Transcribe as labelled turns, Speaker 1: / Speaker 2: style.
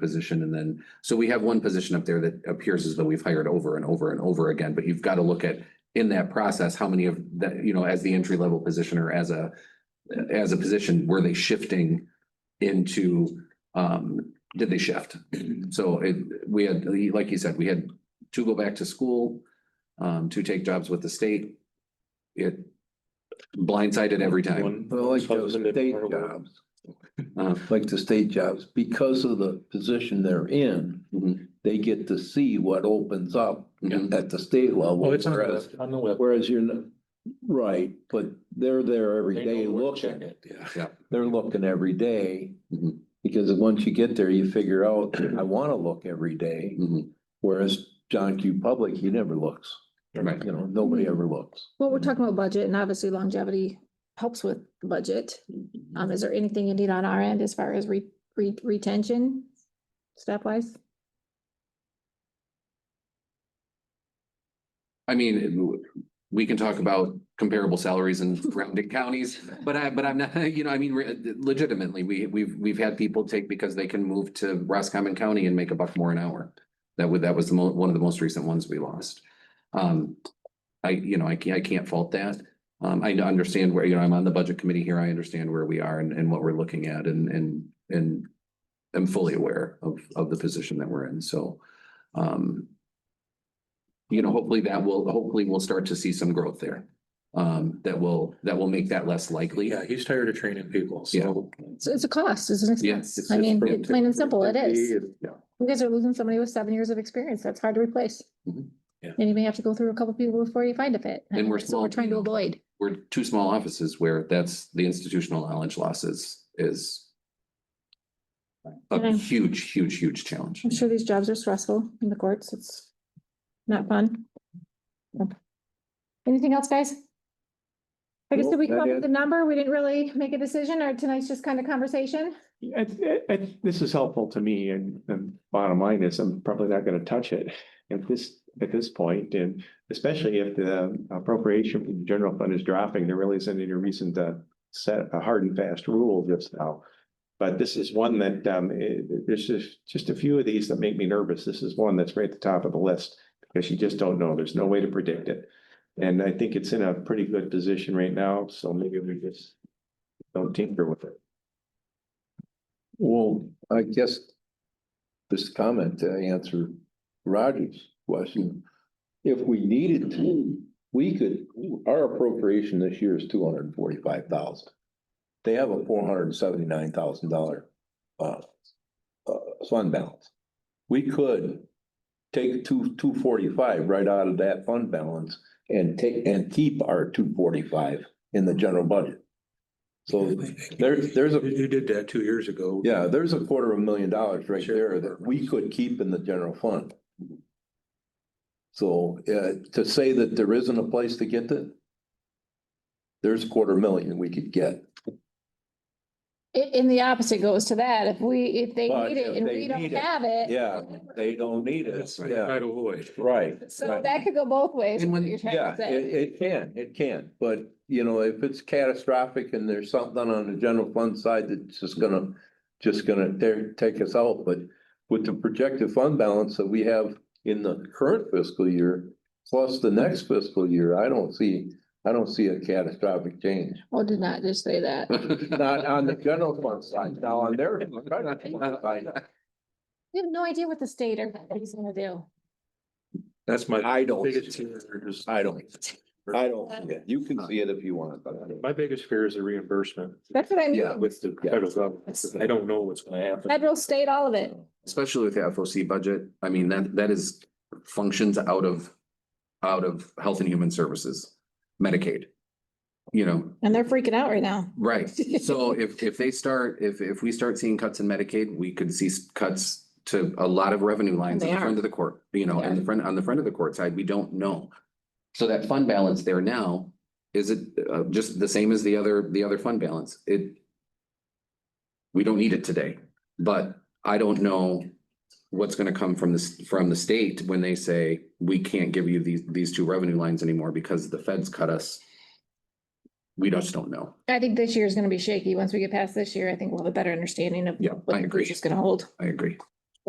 Speaker 1: position and then, so we have one position up there that appears as though we've hired over and over and over again, but you've got to look at in that process, how many of that, you know, as the entry level position or as a as a position, were they shifting into um, did they shift? So it, we had, like you said, we had two go back to school, um, two take jobs with the state. It blindsided every time.
Speaker 2: One
Speaker 3: Well, like those
Speaker 2: substantive
Speaker 3: state
Speaker 2: part of work.
Speaker 3: jobs,
Speaker 1: Uh,
Speaker 3: like the state jobs, because of the position they're in,
Speaker 2: Mm-hmm.
Speaker 1: Mhm.
Speaker 3: they get to see what opens up
Speaker 1: Mhm.
Speaker 3: at the state level.
Speaker 2: Oh, it's on the
Speaker 3: whereas-
Speaker 2: web, on the web.
Speaker 3: Whereas you're, not- right, but they're there every
Speaker 2: They
Speaker 3: day
Speaker 2: know where to check
Speaker 3: looking.
Speaker 2: it. Mm-hmm. Yeah.
Speaker 1: Yeah.
Speaker 3: They're looking every day.
Speaker 1: Mhm.
Speaker 3: Because once you get there, you figure out, I want to look every
Speaker 2: Mm-hmm.
Speaker 3: day,
Speaker 1: Mhm.
Speaker 3: whereas John Q. Public, he never looks.
Speaker 1: Right.
Speaker 3: You know, nobody ever looks.
Speaker 4: Well, we're talking about budget and obviously longevity helps with the budget. Um, is there anything you need on our end as far as re, re, retention? Step wise?
Speaker 1: I mean, we can talk about comparable salaries in surrounding counties, but I, but I'm not, you know, I mean, re- legitimately, we, we've, we've had people take because they can move to Roscommon County and make a buck more an hour. That would, that was the mo- one of the most recent ones we lost. Um, I, you know, I can't, I can't fault that. Um, I understand where, you know, I'm on the budget committee here. I understand where we are and, and what we're looking at and, and, and I'm fully aware of, of the position that we're in, so, um, you know, hopefully that will, hopefully we'll start to see some growth there. Um, that will, that will make that less likely.
Speaker 2: Yeah, he's tired of training people,
Speaker 1: Yeah.
Speaker 2: so.
Speaker 4: So it's a cost, it's an
Speaker 1: Yes,
Speaker 4: expense. I mean,
Speaker 1: it's-
Speaker 4: it's plain and simple, it is.
Speaker 1: Yeah.
Speaker 4: You guys are losing somebody with seven years of experience. That's hard to replace.
Speaker 1: Mhm.
Speaker 2: Yeah.
Speaker 4: And you may have to go through a couple people before you find a fit.
Speaker 1: And we're
Speaker 4: So
Speaker 1: small,
Speaker 4: We're trying
Speaker 1: you
Speaker 4: to
Speaker 1: know.
Speaker 4: avoid.
Speaker 1: We're two small offices where that's the institutional knowledge loss is, is
Speaker 4: And
Speaker 1: a
Speaker 4: I'm-
Speaker 1: huge, huge, huge challenge.
Speaker 4: I'm sure these jobs are stressful in the courts. It's not fun. Okay. Anything else, guys? I guess
Speaker 3: Nope,
Speaker 4: did we
Speaker 3: that
Speaker 4: come up
Speaker 3: is-
Speaker 4: with a number? We didn't really make a decision or tonight's just kind of conversation?
Speaker 5: I, th- I, I- this is helpful to me and, and bottom line is I'm probably not gonna touch it at this, at this point, and especially if the appropriation from the general fund is dropping, there really isn't any reason to set a hard and fast rule just now. But this is one that, um, it- there's just, just a few of these that make me nervous. This is one that's right at the top of the list because you just don't know. There's no way to predict it. And I think it's in a pretty good position right now, so maybe we just don't tinker with it.
Speaker 3: Well, I guess this comment to answer Roger's question. If we needed to, we could, our appropriation this year is two hundred and forty-five thousand. They have a four hundred and seventy-nine thousand dollar uh uh fund balance. We could take two, two forty-five right out of that fund balance and take and keep our two forty-five in the general budget. So there- there's a-
Speaker 2: You you did that two years ago.
Speaker 3: yeah, there's a quarter of a million dollars right
Speaker 2: Sure.
Speaker 3: there that we could keep in the general fund. So, uh, to say that there isn't a place to get it, there's a quarter million we could get.
Speaker 4: And, and the opposite goes to that. If we, if they
Speaker 3: But
Speaker 4: need it
Speaker 3: if
Speaker 4: and
Speaker 3: they
Speaker 4: we don't
Speaker 3: need it,
Speaker 4: have it.
Speaker 3: Yeah, they don't need it.
Speaker 2: Eh, That's
Speaker 3: Yeah,
Speaker 2: right, avoid.
Speaker 3: right.
Speaker 4: So
Speaker 3: right.
Speaker 4: that could go both ways.
Speaker 1: And when-
Speaker 4: what you're trying
Speaker 3: Yeah,
Speaker 4: to say.
Speaker 3: it, it can, it can, but you know, if it's catastrophic and there's something on the general fund side that's just gonna, just gonna tear, take us out, but with the projected fund balance that we have in the current fiscal year, plus the next fiscal year, I don't see, I don't see a catastrophic change.
Speaker 4: Well, did not just say that.
Speaker 3: Not on the general fund side, now on their. credit fund side,
Speaker 4: We have no idea what the state or what he's gonna do.
Speaker 2: That's my
Speaker 3: I don't,
Speaker 2: biggest fear. is-
Speaker 3: I don't, I don't, yeah, you can see it if you want, but I don't.
Speaker 2: My biggest fear is the reimbursement
Speaker 4: That's what I mean.
Speaker 3: Yeah.
Speaker 2: with the
Speaker 3: Yeah.
Speaker 2: federal government. I don't know what's gonna happen.
Speaker 4: Federal, state, all of it.
Speaker 1: Especially with the FOC budget. I mean, that, that is functions out of, out of Health and Human Services, Medicaid. You know,
Speaker 4: And they're freaking out right now.
Speaker 1: Right, so if, if they start, if, if we start seeing cuts in Medicaid, we could see s- cuts to a lot of revenue lines on
Speaker 4: They
Speaker 1: the
Speaker 4: are.
Speaker 1: front of the court, you know, and the front, on the front of the court side, we don't know. So that fund balance there now, is it, uh, just the same as the other, the other fund balance? It. We don't need it today, but I don't know what's gonna come from this, from the state when they say, we can't give you these, these two revenue lines anymore because the feds cut us. We just don't know.
Speaker 4: I think this year is gonna be shaky. Once we get past this year, I think we'll have a better understanding of.
Speaker 1: Yeah,
Speaker 4: what
Speaker 1: I
Speaker 4: the
Speaker 1: agree.
Speaker 4: future's gonna hold.
Speaker 1: I agree.